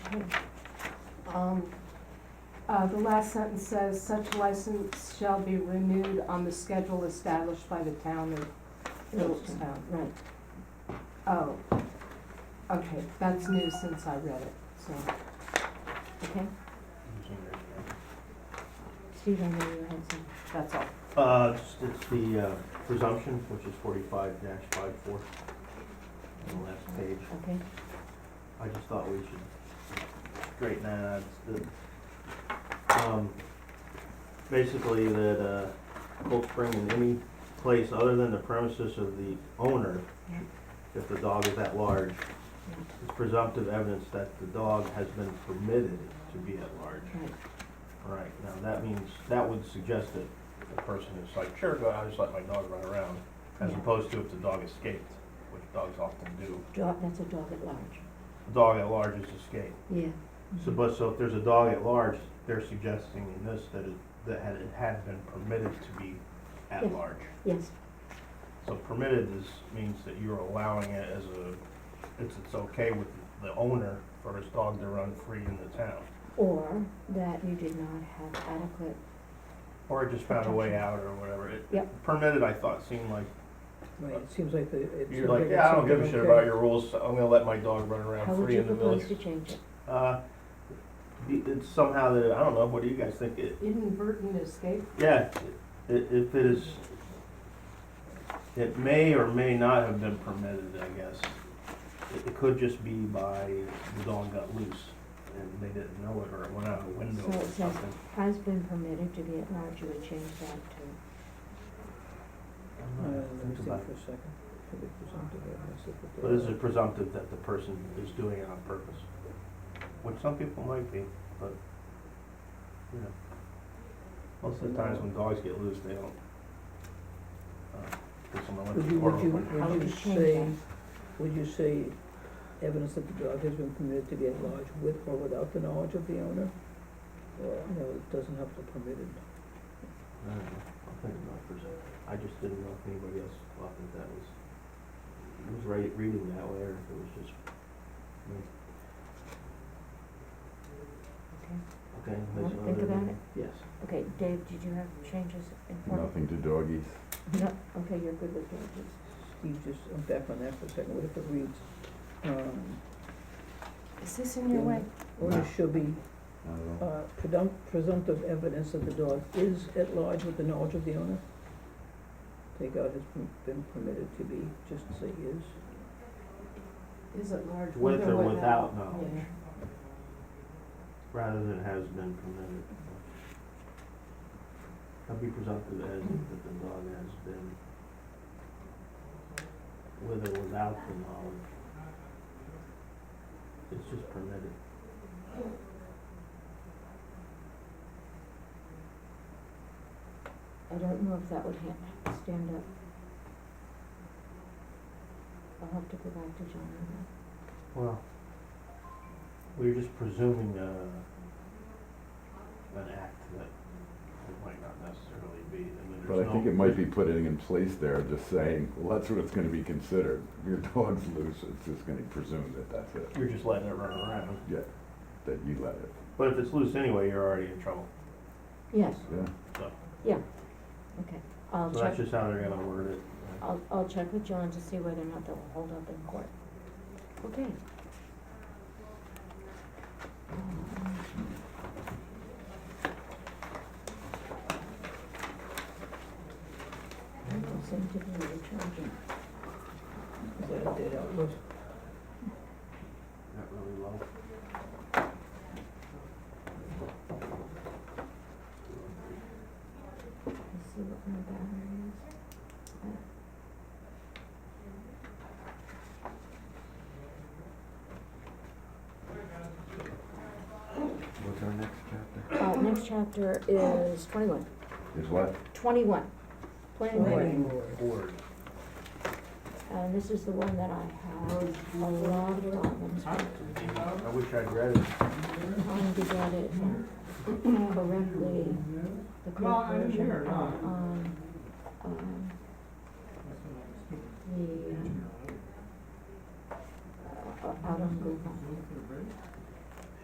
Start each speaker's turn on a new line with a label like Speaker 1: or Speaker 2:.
Speaker 1: Um, uh, the last sentence says, such license shall be renewed on the schedule established by the town of Phillipstown.
Speaker 2: Right,
Speaker 1: Oh, okay, that's new since I read it, so.
Speaker 2: okay. Steve, I know you had some.
Speaker 1: That's all.
Speaker 3: Uh, it's, it's the uh, presumption, which is forty-five dash five four, on the last page.
Speaker 2: Okay.
Speaker 3: I just thought we should straighten that out. It's the- um, Basically, that, uh, Cold Spring in any place other than the premises of the owner,
Speaker 2: Yeah.
Speaker 3: if the dog is at large, is presumptive evidence that the dog has been permitted to be at large.
Speaker 2: Right.
Speaker 3: Right, now that means, that would suggest that the person is like, sure, go, I just let my dog run around, as
Speaker 2: Yeah.
Speaker 3: opposed to if the dog escaped, which dogs often do.
Speaker 2: Dog, that's a dog at large.
Speaker 3: The dog at large is escaped.
Speaker 2: Yeah. Mm-hmm.
Speaker 3: So, but, so if there's a dog at large, they're suggesting in this that it, that had- it had been permitted to be
Speaker 2: Yeah.
Speaker 3: at large.
Speaker 2: Yes,
Speaker 3: So permitted is, means that you're allowing it as a, it's, it's okay with the owner for his dog to run free in the town.
Speaker 2: or that you did not have adequate,
Speaker 3: Or it just found a way out or whatever. It-
Speaker 2: Yep.
Speaker 3: Permitted, I thought, seemed like,
Speaker 4: Right, it seems like the, it
Speaker 3: you're
Speaker 4: seems
Speaker 3: like,
Speaker 4: like
Speaker 3: yeah, I
Speaker 4: it's
Speaker 3: don't give a
Speaker 4: something
Speaker 3: shit
Speaker 4: okay. Uh,
Speaker 3: about your rules, so I'm gonna let my dog run
Speaker 2: how
Speaker 3: around
Speaker 2: would
Speaker 3: free
Speaker 2: you
Speaker 3: in the
Speaker 2: propose
Speaker 3: village.
Speaker 2: to change it?
Speaker 3: Uh, it- it's somehow that, I don't know, what do you guys think? It,
Speaker 1: Inadvertent escape,
Speaker 3: Yeah, i- if it is, it may or may not have been permitted, I guess. It- It could just be by the dog got loose and they didn't know it or it went out a window
Speaker 2: So
Speaker 3: or
Speaker 2: it says-
Speaker 3: something.
Speaker 2: Has been permitted to be at large, you would change that
Speaker 4: Uh,
Speaker 3: Uh,
Speaker 4: let me
Speaker 3: think
Speaker 4: think
Speaker 3: about
Speaker 4: for a second. Could be presumptive evidence if it-
Speaker 3: it. But is it presumptive that the person is doing it on purpose? Which some people might be, but, you know. Most of the times when dogs get loose, they don't. uh, Cause someone left
Speaker 4: Would
Speaker 3: the
Speaker 4: you,
Speaker 3: door
Speaker 4: would you,
Speaker 3: open.
Speaker 2: How
Speaker 4: would
Speaker 2: would
Speaker 4: you
Speaker 2: you change
Speaker 4: say,
Speaker 2: that?
Speaker 4: would you say evidence that the dog has been permitted to be at large with or without the knowledge of the owner? Or, no, it doesn't have to permitted.
Speaker 3: I don't know, I'll think about it for a second. I just didn't know if anybody else thought that that was, was right, reading that way, or if it was just, okay.
Speaker 2: to,
Speaker 3: there's
Speaker 2: okay? Think
Speaker 3: another-
Speaker 2: about it.
Speaker 3: Yes.
Speaker 2: Okay, Dave, did you have changes in front?
Speaker 5: Nothing to doggies.
Speaker 2: No, okay, you're good with changes.
Speaker 4: Steve, just, I'm back on that for a second, we have to read, um,
Speaker 1: is this in your way?
Speaker 4: owner
Speaker 5: No.
Speaker 4: should be
Speaker 5: Not at all.
Speaker 4: Uh, predum- presumptive evidence that the dog is at large with the knowledge of the owner? Take out has been- been permitted to be, just say is.
Speaker 1: Is it large?
Speaker 3: With or without
Speaker 1: Yeah.
Speaker 3: knowledge, rather than has been permitted. I'd be presumptive as that the dog has been, with or without the knowledge. It's just permitted.
Speaker 2: I don't know if that would ha- stand up. I'll have to go back to John on that.
Speaker 3: Well, we're just presuming uh, an act that it might not necessarily be. I mean,
Speaker 5: But
Speaker 3: there's
Speaker 5: I
Speaker 3: no-
Speaker 5: think it might be putting in place there, just saying, well, that's what it's gonna be considered. If Your dog's loose, it's just gonna presume that that's it,
Speaker 3: You're just letting it run around.
Speaker 5: that you let it,
Speaker 3: But if it's loose anyway, you're already in trouble.
Speaker 2: Yes,
Speaker 5: yeah.
Speaker 2: okay, I'll
Speaker 3: So that's
Speaker 2: check,
Speaker 3: just how they're gonna word it. right?
Speaker 2: I'll, I'll check with John to see whether or not that will hold up in court. Okay. I don't seem to be recharging.
Speaker 4: Is that a dead outlaw?
Speaker 3: Not really low.
Speaker 2: Let's see what my battery is.
Speaker 5: What's our next chapter?
Speaker 2: Uh, next chapter is twenty-one.
Speaker 5: Is what?
Speaker 2: Twenty-one. Planning board.
Speaker 4: Planning board.
Speaker 3: Board.
Speaker 2: And this is the one that I have a lot of problems with,
Speaker 3: I wish I'd read it.
Speaker 2: trying to get it correctly, the correct version out on, um, the, uh, out on uh, Google.